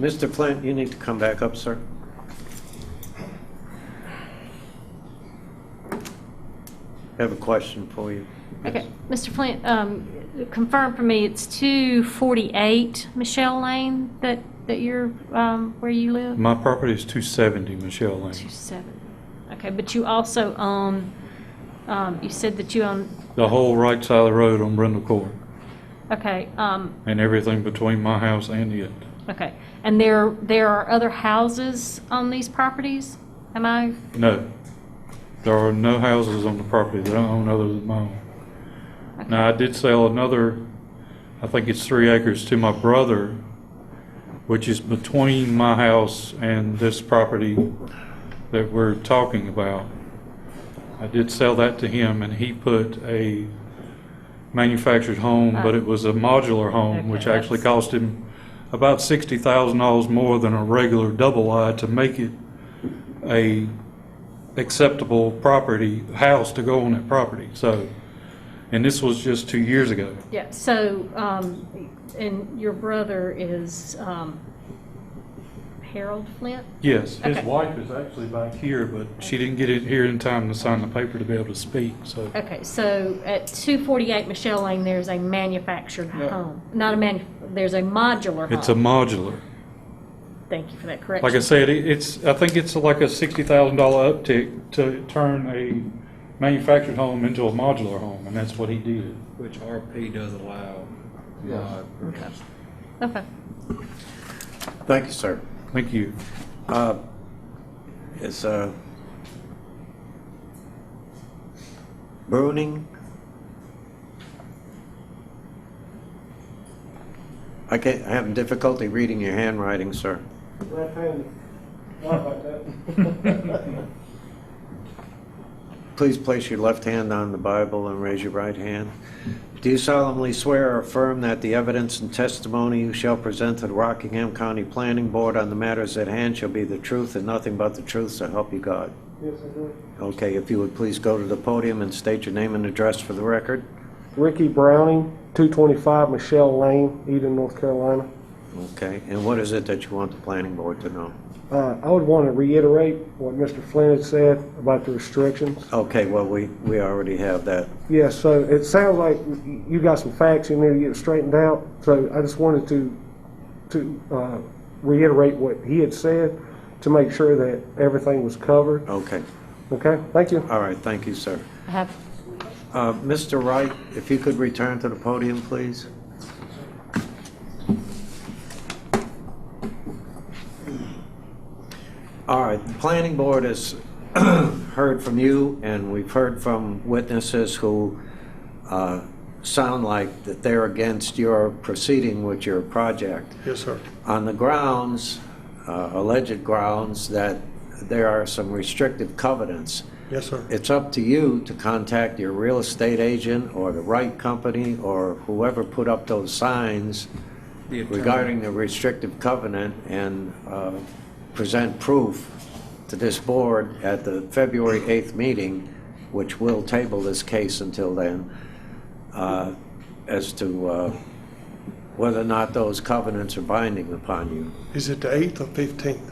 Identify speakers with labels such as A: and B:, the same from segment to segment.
A: Mr. Flint, you need to come back up, sir. I have a question for you.
B: Okay, Mr. Flint, um, confirm for me, it's 248 Michelle Lane that, that you're, um, where you live?
C: My property is 270 Michelle Lane.
B: 27, okay, but you also own, um, you said that you own,
C: The whole right side of the road on Brindle Court
B: okay, um,
C: and everything between my house and it.
B: okay. And there, there are other houses on these properties? Am I,
C: No, there are no houses on the property that I own other than my own.
B: Okay.
C: Now, I did sell another, I think it's three acres to my brother, which is between my house and this property that we're talking about. I did sell that to him and he put a manufactured home, but it was a modular home, which
B: Okay,
C: actually
B: that's-
C: cost him about sixty thousand dollars more than a regular double-wide to make it a acceptable property, house to go on that property, so. And this was just two years ago.
B: yeah, so, um, and your brother is, um, Harold Flint?
C: Yes, his
B: Okay.
C: wife is actually back here, but she didn't get in here in time to sign the paper to be able to speak, so.
B: Okay, so at 248 Michelle Lane, there's a manufactured
C: No.
B: home, not a manu, there's a modular home.
C: It's a modular.
B: Thank you for that
C: Like I
B: correction.
C: said, it- it's, I think it's like a sixty thousand dollar uptick to turn a manufactured home into a modular home, and that's what he did.
D: Which RP does allow.
C: Yeah.
D: uh, purchase.
B: Okay.
A: Thank you, sir.
C: Thank you.
A: Uh, Is uh, Bruning? I can't, I have difficulty reading your handwriting, sir.
E: Left-handed. Not like that.
A: Please place your left hand on the Bible and raise your right hand. Do you solemnly swear or affirm that the evidence and testimony you shall present to the Rockingham County Planning Board on the matters at hand shall be the truth and nothing but the truth, so help you God?
E: Yes, I do.
A: Okay, if you would please go to the podium and state your name and address for the record.
E: Ricky Browning, 225 Michelle Lane, Eden, North Carolina.
A: Okay, and what is it that you want the planning board to know?
E: Uh, I would want to reiterate what Mr. Flynn had said about the restrictions.
A: Okay, well, we, we already have that.
E: Yeah, so it sounds like y- you got some facts you need to get straightened out, so I just wanted to, to uh, reiterate what he had said to make sure that everything was covered.
A: Okay,
E: Okay, thank you.
A: all right, thank you, sir.
B: I have
A: Uh, Mr. Wright, if you could return to the podium, please. All right, the planning board has heard from you, and we've heard from witnesses who uh, sound like that they're against your proceeding with your project.
C: Yes, sir.
A: on the grounds, uh, alleged grounds, that there are some restrictive covenants.
C: Yes, sir.
A: It's up to you to contact your real estate agent or the right company or whoever put up those signs
D: The attorney.
A: regarding the restrictive covenant and uh, present proof to this board at the February 8th meeting, which will table this case until then, uh, as to uh, whether or not those covenants are binding upon you.
F: Is it the 8th or 15th?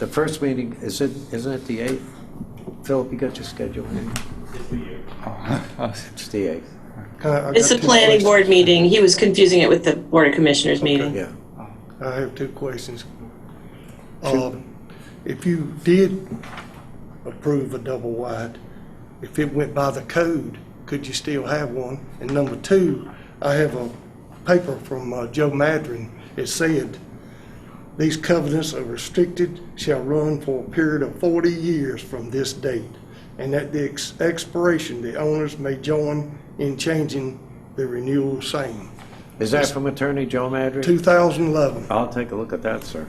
A: The first meeting, is it, isn't it the 8th? Philip, you got your schedule? It's the 8th.
F: I- I
G: It's
F: got
G: a
F: two
G: planning
F: questions.
G: board meeting. He was confusing it with the Board of Commissioners meeting.
A: Yeah.
F: I have two questions. Um, If you did approve a double wide, if it went by the code, could you still have one? And number two, I have a paper from uh, Joe Madron. It said, "These covenants are restricted, shall run for a period of 40 years from this date, and at the ex- expiration, the owners may join in changing the renewal same."
A: Is that from Attorney Joe Madry?
F: 2011.
A: I'll take a look at that, sir.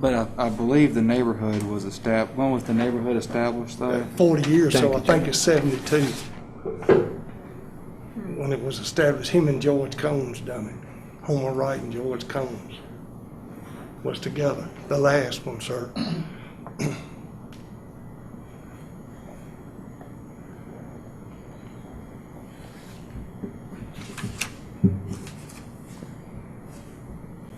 D: But I, I believe the neighborhood was estab, when was the neighborhood established though?
F: 40 years, so I
D: Thank you,
F: think it's 72, when it was established, him and George Combs done it. Homer Wright and George Combs was together, the last one, sir.